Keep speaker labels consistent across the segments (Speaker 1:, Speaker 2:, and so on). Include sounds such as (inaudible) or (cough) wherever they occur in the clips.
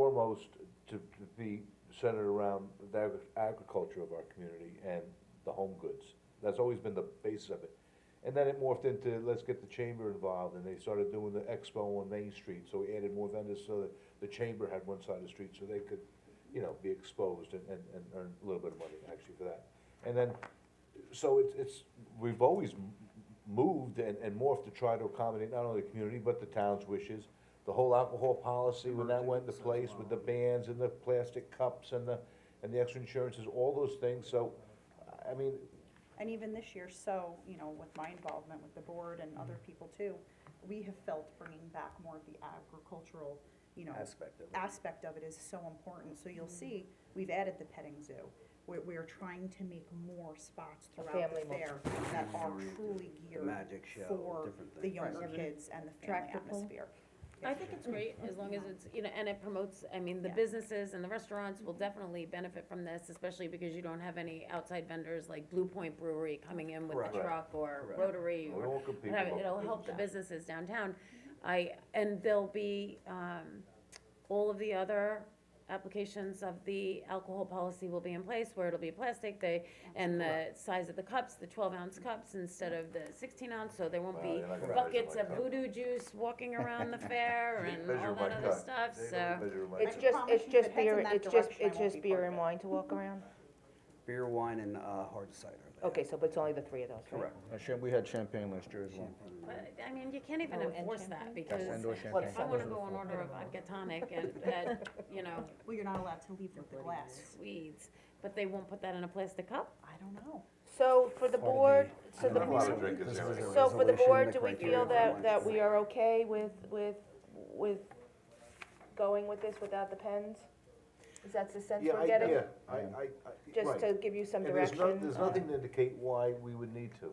Speaker 1: foremost to, to be centered around the agri- agriculture of our community and the home goods. That's always been the basis of it. And then it morphed into, let's get the chamber involved, and they started doing the expo on Main Street, so we added more vendors so that the chamber had one side of the street, so they could, you know, be exposed and, and, and earn a little bit of money actually for that. And then, so it's, it's, we've always m- moved and, and morphed to try to accommodate not only the community, but the town's wishes. The whole alcohol policy, when that went into place with the bans and the plastic cups and the, and the extra insurances, all those things, so, I mean,
Speaker 2: And even this year, so, you know, with my involvement with the board and
Speaker 3: Mm-hmm.
Speaker 2: other people too, we have felt bringing back more of the agricultural, you know,
Speaker 3: aspect of it. Mm-hmm.
Speaker 2: aspect of it is so important. So you'll see, we've added the petting zoo. We're, we're trying to make more spots
Speaker 4: A
Speaker 2: throughout
Speaker 4: family
Speaker 2: the
Speaker 4: mall.
Speaker 2: fair that are truly
Speaker 3: The
Speaker 2: geared
Speaker 3: magic show,
Speaker 2: for
Speaker 3: different
Speaker 2: the
Speaker 3: things.
Speaker 2: younger
Speaker 4: Right.
Speaker 2: kids and the family
Speaker 4: Tractor pull.
Speaker 2: atmosphere.
Speaker 5: I think it's great, as long as it's, you know, and it promotes, I mean, the
Speaker 2: Yeah.
Speaker 5: businesses and the restaurants will definitely benefit from this, especially because you don't have any outside vendors like Blue Point Brewery coming in with
Speaker 3: Correct.
Speaker 5: the truck or
Speaker 3: Correct.
Speaker 5: Rotary
Speaker 1: we
Speaker 5: or
Speaker 1: all compete.
Speaker 5: whatever.
Speaker 1: among
Speaker 5: It'll help the
Speaker 1: businesses.
Speaker 5: businesses downtown. I, and there'll be, um, all of the other applications of the alcohol policy will be in place where it'll be plastic, they, and the size of the cups, the twelve ounce cups instead of the sixteen ounce, so there won't
Speaker 1: Well,
Speaker 5: be
Speaker 1: you're not gonna measure
Speaker 5: buckets
Speaker 1: my
Speaker 5: of
Speaker 1: cup.
Speaker 5: voodoo juice walking around the fair
Speaker 1: They
Speaker 5: and
Speaker 1: (laughs) measure
Speaker 5: all
Speaker 1: my
Speaker 5: that other
Speaker 1: cup.
Speaker 5: stuff,
Speaker 1: They don't
Speaker 5: so.
Speaker 1: measure my
Speaker 4: It's
Speaker 1: cup.
Speaker 2: I
Speaker 4: just,
Speaker 2: promise
Speaker 4: it's
Speaker 2: you, if
Speaker 4: just
Speaker 2: it's in
Speaker 4: beer,
Speaker 2: that
Speaker 4: it's just,
Speaker 2: direction, I
Speaker 4: it's
Speaker 2: won't
Speaker 4: just
Speaker 2: be
Speaker 4: beer
Speaker 2: part
Speaker 4: and
Speaker 2: of it.
Speaker 4: wine to walk around?
Speaker 3: Beer, wine, and, uh, hard cider. they
Speaker 4: Okay, so, but it's only the three of those, right?
Speaker 3: Correct.
Speaker 6: Uh, cham- We had champagne last year as well.
Speaker 5: But, I mean, you can't even
Speaker 4: Oh, and
Speaker 5: enforce that
Speaker 4: champagne?
Speaker 5: because
Speaker 6: Indoor
Speaker 4: Well,
Speaker 6: champagne.
Speaker 5: if I wanna go and order a vodka tonic and that, you know,
Speaker 2: Well, you're not allowed to leave with the glass.
Speaker 5: sweets, but they won't put that in a plastic cup?
Speaker 2: I don't know.
Speaker 4: So for the board, so
Speaker 1: I'm
Speaker 4: the
Speaker 1: not allowed
Speaker 4: board,
Speaker 1: to drink this area.
Speaker 4: so for the
Speaker 3: Resolution,
Speaker 4: board,
Speaker 3: the
Speaker 4: do we
Speaker 3: criteria
Speaker 4: feel
Speaker 3: for
Speaker 4: that,
Speaker 3: wine.
Speaker 4: that we are okay with, with, with going with this without the pens? Is that the sense
Speaker 1: Yeah, I,
Speaker 4: we're
Speaker 1: yeah,
Speaker 4: getting?
Speaker 1: I, I, I,
Speaker 4: Just
Speaker 1: right.
Speaker 4: to give you some
Speaker 1: And there's no-
Speaker 4: direction?
Speaker 1: There's nothing to indicate why we would need to,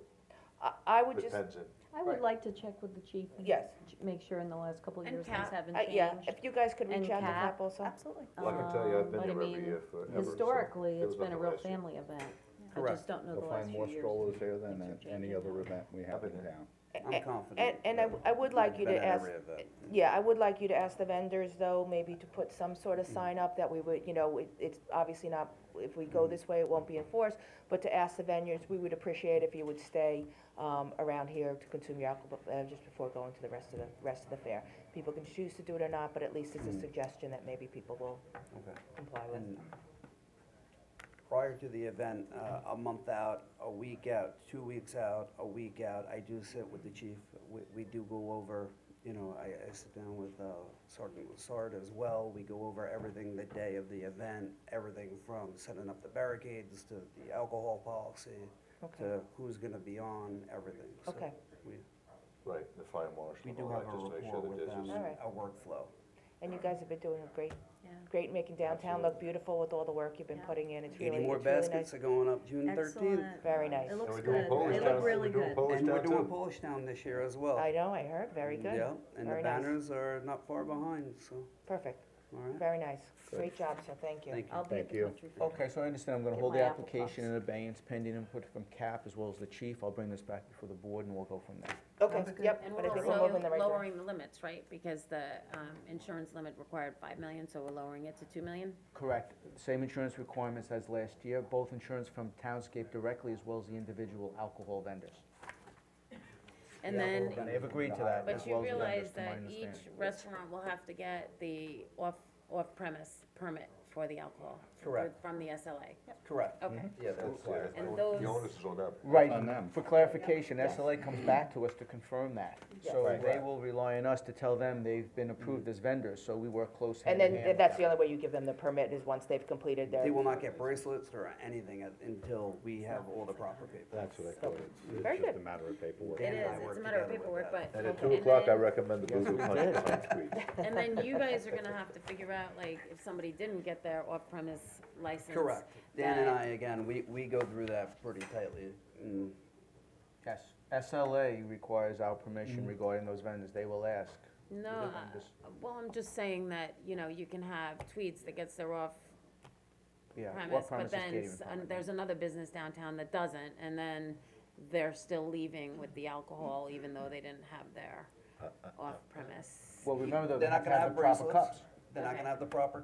Speaker 4: I, I would
Speaker 1: with
Speaker 4: just,
Speaker 1: Penzance.
Speaker 7: I would like to check with the chief. and
Speaker 4: Yes.
Speaker 7: ch- Make sure in the last couple of
Speaker 5: And
Speaker 7: years
Speaker 5: Cap.
Speaker 7: things haven't
Speaker 4: uh, yeah,
Speaker 7: changed.
Speaker 4: if you guys could reach
Speaker 7: And
Speaker 4: out to
Speaker 7: cap.
Speaker 4: Cap also.
Speaker 2: Absolutely.
Speaker 1: Well, I can tell you, I've been
Speaker 7: Um,
Speaker 1: there
Speaker 7: but
Speaker 1: every
Speaker 7: I mean,
Speaker 1: year forever. so
Speaker 7: Historically,
Speaker 1: it
Speaker 7: it's
Speaker 1: was
Speaker 7: been a
Speaker 1: nothing
Speaker 7: real
Speaker 1: last year.
Speaker 7: family event. I
Speaker 6: Correct.
Speaker 7: just don't know
Speaker 6: You'll
Speaker 7: the last
Speaker 6: find
Speaker 7: few
Speaker 6: more
Speaker 7: years.
Speaker 6: strollers there than
Speaker 7: Things are
Speaker 6: at any
Speaker 7: changing
Speaker 6: other
Speaker 7: now.
Speaker 6: event we have in town.
Speaker 4: A-
Speaker 3: I'm confident.
Speaker 4: And, and I, I would like you
Speaker 3: Been
Speaker 4: to
Speaker 3: at
Speaker 4: ask,
Speaker 3: every event.
Speaker 4: Yeah, I would like you to ask the vendors though, maybe to put some sort of sign up that we would, you know, it, it's obviously not, if we
Speaker 3: Mm-hmm.
Speaker 4: go this way, it won't be enforced, but to ask the vendors, we would appreciate if you would stay, um, around here to consume your alcohol, uh, just before going to the rest of the, rest of the fair. People can choose to do it or not, but at least it's
Speaker 3: Mm-hmm.
Speaker 4: a suggestion that maybe people will
Speaker 3: Okay.
Speaker 4: comply with.
Speaker 3: And prior to the event, uh, a month out, a week out, two weeks out, a week out, I do sit with the chief. We, we do go over, you know, I, I sit down with uh, Sergeant Lassard as well. We go over everything the day of the event, everything from setting up the barricades to the alcohol policy,
Speaker 4: Okay.
Speaker 3: to who's gonna be on, everything. So
Speaker 4: Okay.
Speaker 3: We,
Speaker 1: Right, the fire marshal.
Speaker 3: we
Speaker 1: and
Speaker 3: do
Speaker 1: all
Speaker 3: have
Speaker 1: that,
Speaker 3: a
Speaker 1: just to make
Speaker 3: rapport
Speaker 1: sure that
Speaker 3: with
Speaker 1: this
Speaker 3: them,
Speaker 1: is-
Speaker 4: All right.
Speaker 3: a workflow.
Speaker 4: And you guys have been doing a great,
Speaker 5: Yeah.
Speaker 4: great making downtown look beautiful with all the work you've been
Speaker 2: Yeah.
Speaker 4: putting in, it's really,
Speaker 3: Eighty
Speaker 4: it's
Speaker 3: more
Speaker 4: really nice.
Speaker 3: baskets Oh. are going up June thirteenth.
Speaker 4: Very nice.
Speaker 7: It
Speaker 1: And
Speaker 7: looks
Speaker 1: we're
Speaker 7: good.
Speaker 1: doing Polish
Speaker 7: They
Speaker 1: Town-
Speaker 7: look really
Speaker 1: We're doing
Speaker 7: good.
Speaker 1: Polish
Speaker 3: And we're
Speaker 1: Town
Speaker 3: doing
Speaker 1: too.
Speaker 3: Polish Town this year as well.
Speaker 4: I know, I heard, very good.
Speaker 3: Mm, Yeah, and the
Speaker 4: Very nice.
Speaker 3: banners are not far behind, so,
Speaker 4: Perfect,
Speaker 3: all right,
Speaker 4: very nice, great job, sir, thank you.
Speaker 3: thank you.
Speaker 7: I'll be at
Speaker 6: Thank
Speaker 7: the
Speaker 6: you.
Speaker 7: country fair.
Speaker 6: Okay, so I understand, I'm gonna
Speaker 7: Get
Speaker 6: hold
Speaker 7: my
Speaker 6: the
Speaker 7: apple
Speaker 6: application
Speaker 7: puffs.
Speaker 6: in abeyance pending input from CAP as well as the chief. I'll bring this back before the board and we'll go from there.
Speaker 4: Okay, yep,
Speaker 5: And
Speaker 4: but
Speaker 5: we're
Speaker 4: I think we're moving in the
Speaker 5: also
Speaker 4: right direction.
Speaker 5: lowering the limits, right? Because the, um, insurance limit required five million, so we're lowering it to two million?
Speaker 6: Correct. Same insurance requirements as last year, both insurance from Townscape directly as well as the individual alcohol vendors.
Speaker 5: And then,
Speaker 6: And they've agreed to that as
Speaker 5: but you
Speaker 6: well as
Speaker 5: realize
Speaker 6: the vendors, to my
Speaker 5: that each
Speaker 6: understanding.
Speaker 5: restaurant will have to get the off, off-premise permit for the alcohol. for-
Speaker 3: Correct.
Speaker 5: From the SLA,
Speaker 3: Correct.
Speaker 5: okay.
Speaker 3: Yeah,
Speaker 1: That's, yeah,
Speaker 5: And
Speaker 1: the
Speaker 5: those-
Speaker 1: onus is on them.
Speaker 6: Right,
Speaker 8: On them.
Speaker 6: for clarification, SLA
Speaker 7: Mm-hmm.
Speaker 6: comes back to us to confirm that. So
Speaker 8: Right.
Speaker 6: they will rely on us to tell them they've been
Speaker 7: Mm-hmm.
Speaker 6: approved as vendors, so we work close
Speaker 4: And
Speaker 6: hand in hand.
Speaker 4: then,
Speaker 6: with
Speaker 4: that's
Speaker 6: them.
Speaker 4: the only way you give them the permit, is once they've completed their.
Speaker 3: They will not get bracelets or anything at- until we have all the proper paperwork.
Speaker 8: That's what I thought, it's,
Speaker 4: Very
Speaker 8: it's just a
Speaker 4: good.
Speaker 8: matter of paperwork.
Speaker 5: It
Speaker 3: Dan and I
Speaker 5: is,
Speaker 3: work
Speaker 5: it's a matter of
Speaker 3: together
Speaker 5: paperwork,
Speaker 3: with
Speaker 5: but.
Speaker 3: that.
Speaker 1: And at
Speaker 5: and
Speaker 1: two o'clock, I
Speaker 5: then-
Speaker 1: recommend the Boo Boo Punch behind squeeze.
Speaker 5: And then you guys are gonna have to figure out, like, if somebody didn't get their off-premise license.
Speaker 3: Correct. Dan and
Speaker 5: that-
Speaker 3: I, again, we, we go through that pretty tightly. Mm.
Speaker 6: Yes, SLA requires our
Speaker 7: Mm-hmm.
Speaker 6: permission regarding those vendors, they will ask.
Speaker 5: No,
Speaker 6: Other
Speaker 5: uh,
Speaker 6: vendors.
Speaker 5: well, I'm just saying that, you know, you can have Tweets that gets their off
Speaker 6: Yeah,
Speaker 5: premise, but
Speaker 6: what premise is
Speaker 5: then
Speaker 6: catering
Speaker 5: s- um,
Speaker 6: permit?
Speaker 5: an- there's another business downtown that doesn't, and then they're still leaving with the alcohol even though they didn't have their off premise.
Speaker 6: Well, remember,
Speaker 3: They're
Speaker 6: they have
Speaker 3: not
Speaker 6: to
Speaker 3: gonna
Speaker 6: have
Speaker 3: have
Speaker 6: the proper
Speaker 3: bracelets.
Speaker 6: cups.
Speaker 3: They're not
Speaker 5: Okay.
Speaker 3: gonna have the proper